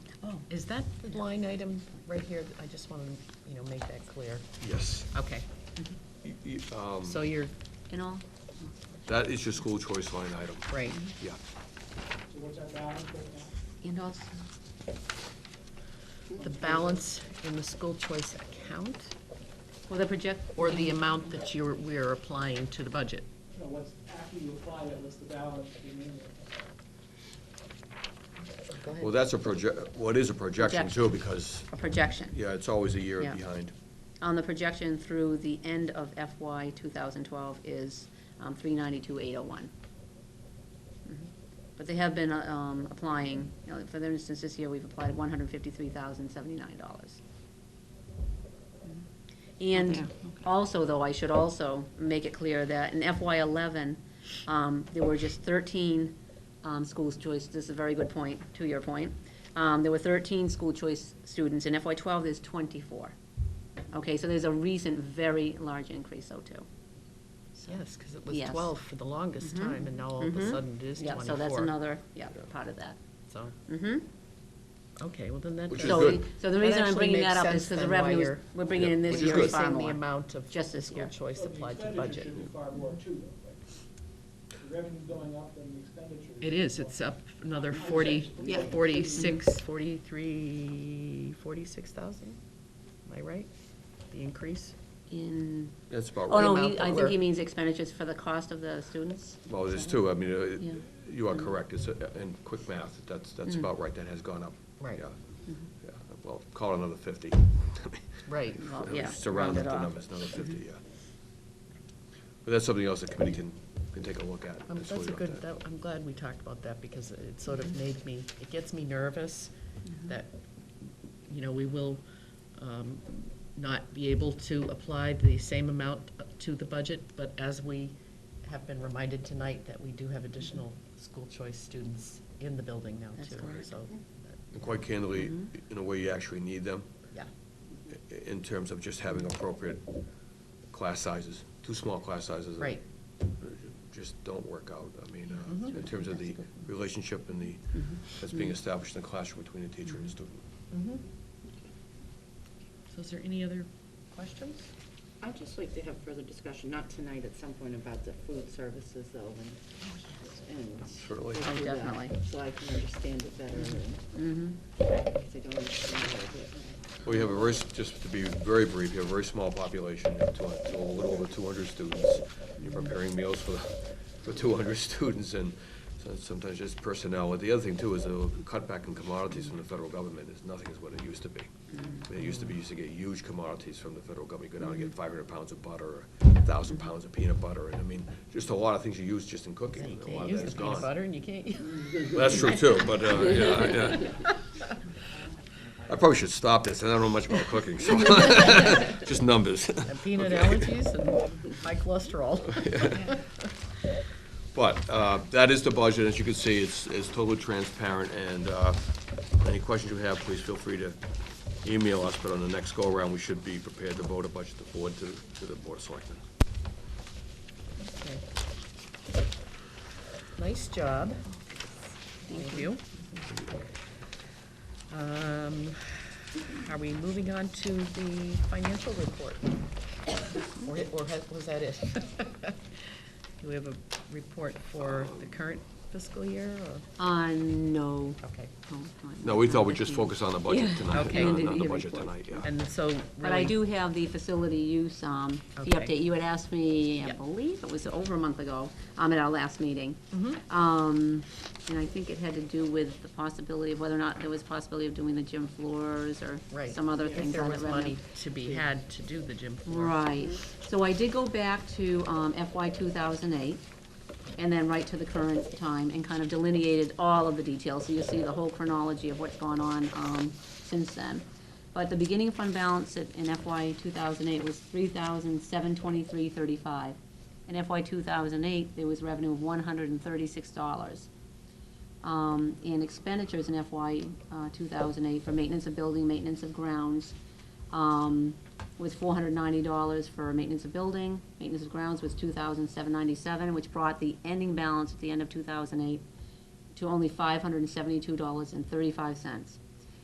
Is that the line item right here? I just want to, you know, make that clear. Yes. Okay, Y- y- um, so you're, in all? That is your school choice line item. right, Yeah. So what's that balance right now? And also, the balance in the school choice account well, the project. or the amount that you're, we're applying to the budget? No, what's, after you apply it, what's the balance remaining? Go ahead. Well, that's a project, well, it is a projection too, because, A projection, yeah, it's always a year Yeah. behind. on the projection through the end of FY 2012 is um, 392,801. Mhm. But they have been uh, um, applying, you know, for their instance, this year, we've applied $153,079. Mm-hmm. Yeah, And okay. also, though, I should also make it clear that in FY eleven, um, there were just thirteen, um, school choice, this is a very good point, to your point. Um, there were thirteen school choice students, in FY twelve, there's twenty-four. Okay, so there's a recent, very large increase, though, too. Yes, because it was Yes. 12 for the longest time, and now all of a Mhm. sudden it is 24. Yeah, so that's another, yeah, Yeah. part of that. So, hmm okay, well, then that. Which is does- So, good. the- so the That reason I'm actually bringing that makes up is sense because the then why revenues you're- we're bringing in this which year is far Increasing the more. amount of just this school year. choice So the applied to the expenditure budget. should be far more too, though, right? The revenue's going up and the expenditure. It is, it's up another 40, Yeah. 46, Mm-hmm. 43, 46,000? Am I right? The increase? In, That's about oh, right. no, amount he- that I think we're- he means expenditures for the cost of the students. Well, there's two, I mean, uh, it- Yeah. you are correct, it's, a- and quick math, that's, that's Mm. about right, that has gone up. Right. Yeah. Yeah. Well, call it another fifty. Right. Well, yeah, Just to round round up the it off. numbers, another fifty, yeah. But that's something else the committee can, can take a look at. Um, That's what That's a we good, want that- I'm glad we talked about that because it sort of Mm-hmm. made me, it gets me nervous that, you know, we will um, not be able to apply the same amount to the budget, but as we have been reminded tonight that we do have additional school choice students in the building now That's too, correct. so. that- And Quite candidly, Mm-hmm. in a way, you actually need them. Yeah. i- in terms of just having appropriate class sizes. Too small class sizes. uh, Right. Just don't work out. I mean, uh, Mhm. in terms of the relationship and the, that's being established in the classroom between the teacher and the student. Mm-hmm. So is there any other questions? I'd just like to have further discussion, not tonight, at some point about the food services though, and, and. Certainly. go through that, Definitely. So I can understand it better, and, Mm-hmm. because I don't understand it. but- We have a very, s- just to be very brief, you have a very small population, you have two- a little over 200 students. You're preparing meals for, for 200 students, and so- sometimes just personnel. The other thing, too, is the cutback in commodities from the federal government is nothing is what it used to be. I mean, It used to be, you used to get huge commodities from the federal government. You go down and get 500 pounds of butter, or 1,000 pounds of peanut butter, and I mean, just a lot of things you use just in cooking. You and A can't lot of use that the is peanut gone. butter and you can't, That's true, too, but, uh, yeah, yeah. I probably should stop this, and I don't know much about cooking, so, just numbers. and peanut Okay. allergies and high cholesterol. But uh, that is the budget, as you can see, it's, it's totally transparent, and uh, any questions you have, please feel free to email us, but on the next go-around, we should be prepared to vote a budget to forward to, to the Board of Selectmen. Okay. Nice job. Thank you. Um, Are we moving on to the financial report? Or or has- was that it? Do we have a report for the current fiscal year, or, Uh, no. okay. No, we thought we'd just focus on the budget Yeah. tonight, Okay. not- And did not the you budget report? tonight, yeah. And so, But I really- do have the facility use, um, the Okay. update. You had asked me, I Yep. believe it was over a month ago, um, at our last meeting. Mhm. Um, and I think it had to do with the possibility of whether or not there was possibility of doing the gym floors or Right. some other If things there on the was revenue. money to be had to do the gym floor. Right, so I did go back to um, FY 2008, and then right to the current time, and kind of delineated all of the details, so you see the whole chronology of what's gone on um, since then. But the beginning fund balance at- in FY 2008 was 3,723.35. In FY 2008, there was revenue of $136 um, and expenditures in FY uh, 2008 for maintenance of building, maintenance of grounds, um, was $490 for maintenance of building, maintenance of grounds was $2,797, which brought the ending balance at the end of 2008 to only $572.35.